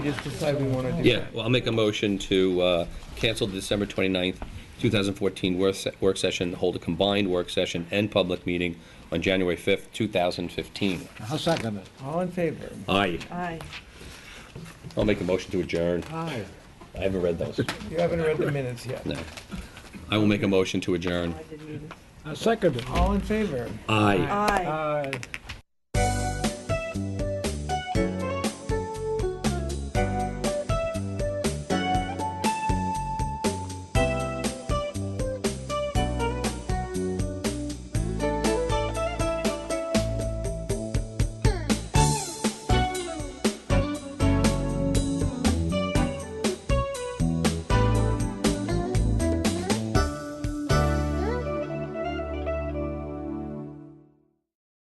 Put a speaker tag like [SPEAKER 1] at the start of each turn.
[SPEAKER 1] Just decide we want to do.
[SPEAKER 2] Yeah, well, I'll make a motion to uh, cancel the December 29th, 2014 work se- work session, hold a combined work session and public meeting on January 5th, 2015.
[SPEAKER 3] I'll second it.
[SPEAKER 1] All in favor?
[SPEAKER 2] Aye.
[SPEAKER 4] Aye.
[SPEAKER 2] I'll make a motion to adjourn.
[SPEAKER 3] Aye.
[SPEAKER 2] I haven't read those.
[SPEAKER 1] You haven't read the minutes yet.
[SPEAKER 2] No. I will make a motion to adjourn.
[SPEAKER 4] I didn't either.
[SPEAKER 3] I'll second it.
[SPEAKER 1] All in favor?
[SPEAKER 2] Aye.
[SPEAKER 4] Aye.
[SPEAKER 1] Aye.